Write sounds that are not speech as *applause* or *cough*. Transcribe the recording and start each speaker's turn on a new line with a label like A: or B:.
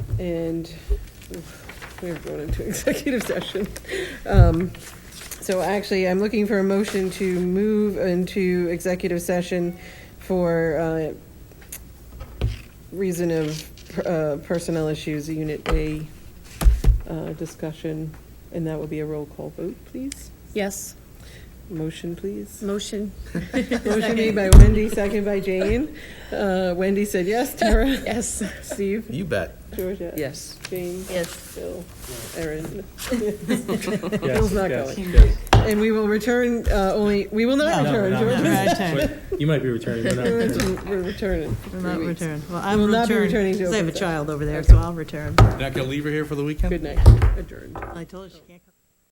A: and we're going into *laughs* executive session. Um, So actually, I'm looking for a motion to move into executive session for uh, reason of uh, personnel issues, Unit A uh, discussion, and that will be a roll call vote, please.
B: Yes,
A: Motion, please.
B: motion.
A: Motion made by Wendy, second by Jane. Uh, Wendy said yes, Tara, *laughs*
B: Yes.
A: Steve,
C: You bet.
A: Georgia.
D: Yes.
A: Jane,
B: Yes.
A: Bill, Erin.
E: Yes,
A: Bill's not
E: yes,
A: going.
E: yes.
A: And we will return, uh, only, we will not
E: No,
A: return,
E: no,
A: Georgia.
D: *laughs*
E: no. Wait, You might be
A: *laughs*
E: returning, but not
A: We're
E: returning. *laughs*
A: return- we're returning.
D: Will not return. Well,
A: Will
D: I'm
A: not be returning
D: returning,
A: to
D: because I have a
A: open session.
D: child over there, so I'll return.
C: Not gonna leave her here for the weekend?
A: Good night, adjourned.
D: I told her she can't come.